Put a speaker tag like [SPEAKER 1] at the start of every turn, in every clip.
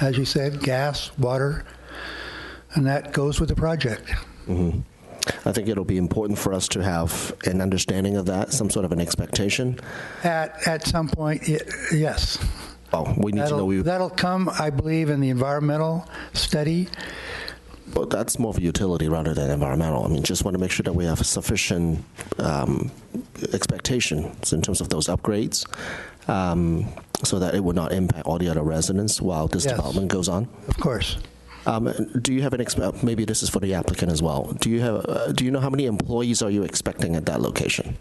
[SPEAKER 1] as you said, gas, water, and that goes with the project.
[SPEAKER 2] I think it'll be important for us to have an understanding of that, some sort of an expectation.
[SPEAKER 1] At, at some point, y- yes.
[SPEAKER 2] Oh, we need to know.
[SPEAKER 1] That'll,
[SPEAKER 2] We,
[SPEAKER 1] that'll come, I believe, in the environmental study.
[SPEAKER 2] but that's more for utility rather than environmental. I mean, just want to make sure that we have sufficient um, expectations in terms of those upgrades, um, so that it would not impact all the other residents while this
[SPEAKER 1] Yes.
[SPEAKER 2] development goes on.
[SPEAKER 1] Of course.
[SPEAKER 2] Um, do you have an exp- maybe this is for the applicant as well? Do you have uh, do you know how many employees are you expecting at that location?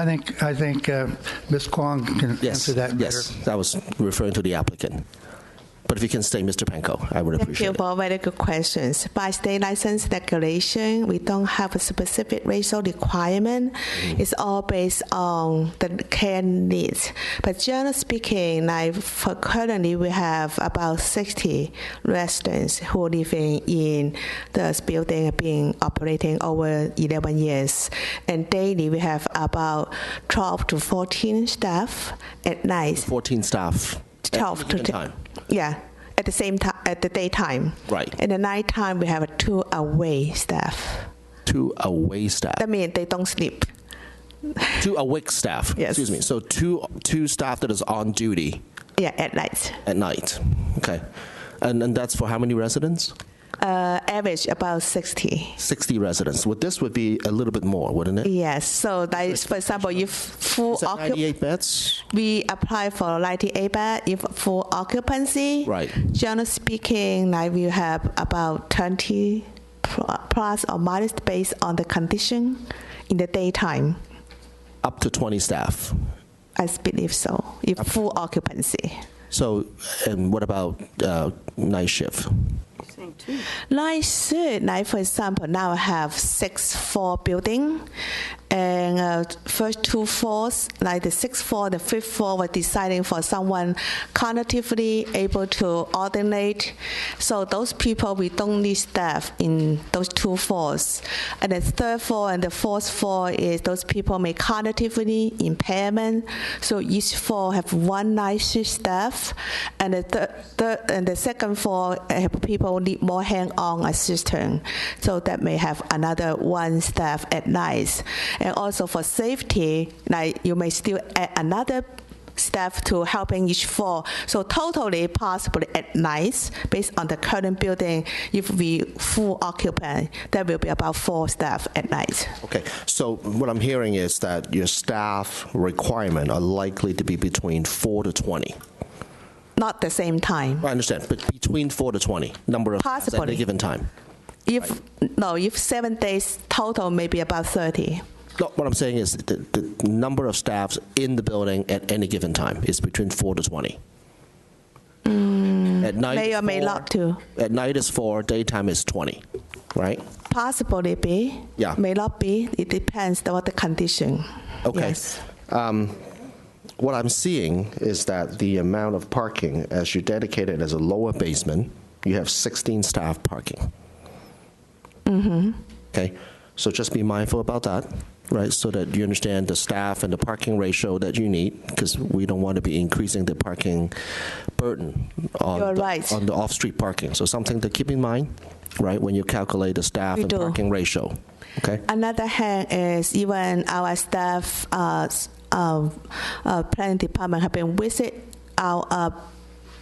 [SPEAKER 1] I think I think uh, Ms. Kwong can
[SPEAKER 2] Yes.
[SPEAKER 1] answer that better.
[SPEAKER 2] yes, I was referring to the applicant. But if you can stay, Mr. Panko, I would
[SPEAKER 3] Thank
[SPEAKER 2] appreciate
[SPEAKER 3] you
[SPEAKER 2] it.
[SPEAKER 3] for very good questions. By state license regulation, we don't have a specific racial requirement.
[SPEAKER 2] Mm.
[SPEAKER 3] It's all based on the care needs. But generally speaking, like for currently, we have about 60 residents who are living in this building and being operating over 11 years. And daily, we have about 12 to 14 staff at night.
[SPEAKER 2] 14 staff. at
[SPEAKER 3] 12
[SPEAKER 2] any
[SPEAKER 3] to
[SPEAKER 2] given
[SPEAKER 3] 10.
[SPEAKER 2] time.
[SPEAKER 3] Yeah, at the same time, at the daytime.
[SPEAKER 2] Right.
[SPEAKER 3] In the nighttime, we have a two away staff.
[SPEAKER 2] Two away staff.
[SPEAKER 3] That means they don't sleep.
[SPEAKER 2] two awake staff.
[SPEAKER 3] Yes.
[SPEAKER 2] Excuse me. So two two staff that is on duty
[SPEAKER 3] Yeah, at night.
[SPEAKER 2] at night. Okay. And, and that's for how many residents?
[SPEAKER 3] Uh, average about 60.
[SPEAKER 2] 60 residents. Well, this would be a little bit more, wouldn't it?
[SPEAKER 3] Yes, so that is, for example, if full
[SPEAKER 2] Is that
[SPEAKER 3] occup-
[SPEAKER 2] 98 beds?
[SPEAKER 3] we apply for 98 bed, if full occupancy,
[SPEAKER 2] Right.
[SPEAKER 3] generally speaking, like we have about 20 pl- plus or minus based on the condition in the daytime.
[SPEAKER 2] Up to 20 staff.
[SPEAKER 3] I believe so, if full occupancy.
[SPEAKER 2] So, and what about uh, night shift?
[SPEAKER 3] Like should like for example, now I have six floor building, and uh, first two floors, like the sixth floor, the fifth floor, were deciding for someone cognitively able to alternate. So those people we don't need staff in those two floors, and the third floor and the fourth floor is those people may cognitively impairment. So each floor have one night shift staff, and the third, third and the second floor uh, people need more hand-on assistance. So that may have another one staff at night, and also for safety, like you may still add another staff to helping each floor. So totally possibly at night, based on the current building, if we full occupant, there will be about four staff at night.
[SPEAKER 2] Okay, so what I'm hearing is that your staff requirement are likely to be between 4 to 20.
[SPEAKER 3] Not the same time.
[SPEAKER 2] I understand, but between 4 to 20, number of times at any
[SPEAKER 3] Possibly.
[SPEAKER 2] given time.
[SPEAKER 3] If no, if seven days total, maybe about thirty.
[SPEAKER 2] No, what I'm saying is the, the number of staffs in the building at any given time is between four to twenty. at night,
[SPEAKER 3] Mm, may or may
[SPEAKER 2] four-
[SPEAKER 3] not to.
[SPEAKER 2] At night is four, daytime is twenty, right?
[SPEAKER 3] Possibly be.
[SPEAKER 2] Yeah.
[SPEAKER 3] May not be. It depends on what the condition.
[SPEAKER 2] Okay.
[SPEAKER 3] Yes.
[SPEAKER 2] Um, What I'm seeing is that the amount of parking, as you dedicate it as a lower basement, you have 16 staff parking. Mm-hmm.
[SPEAKER 3] Mm-hmm.
[SPEAKER 2] Okay, so just be mindful about that, right? So that you understand the staff and the parking ratio that you need, because we don't want to be increasing the parking burden on
[SPEAKER 3] You're
[SPEAKER 2] the,
[SPEAKER 3] right.
[SPEAKER 2] on the off-street parking. So something to keep in mind, right, when you calculate the staff
[SPEAKER 3] We
[SPEAKER 2] and
[SPEAKER 3] do.
[SPEAKER 2] parking ratio. Okay.
[SPEAKER 3] Another hand is even our staff, uh, s- um, uh, planning department have been visit our, uh,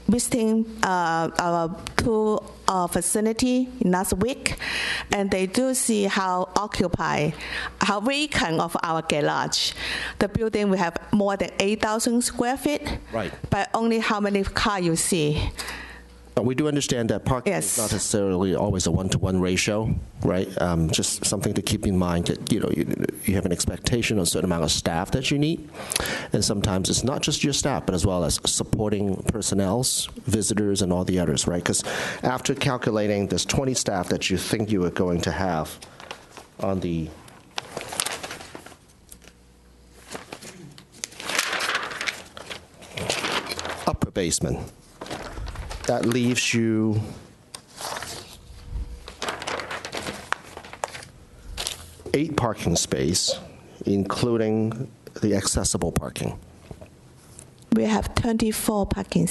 [SPEAKER 3] visiting uh, our two uh, facility last week, and they do see how occupied, how vacant of our garage. The building we have more than 8,000 square feet.
[SPEAKER 2] Right.
[SPEAKER 3] But only how many car you see.
[SPEAKER 2] But we do understand that parking is
[SPEAKER 3] Yes.
[SPEAKER 2] not necessarily always a one-to-one ratio, right? Um, just something to keep in mind that you know you, you have an expectation of a certain amount of staff that you need, and sometimes it's not just your staff, but as well as supporting personnel's, visitors, and all the others, right? Because after calculating this 20 staff that you think you are going to have on the upper basement that leaves you eight parking space, including the accessible parking.
[SPEAKER 3] We have 24 parking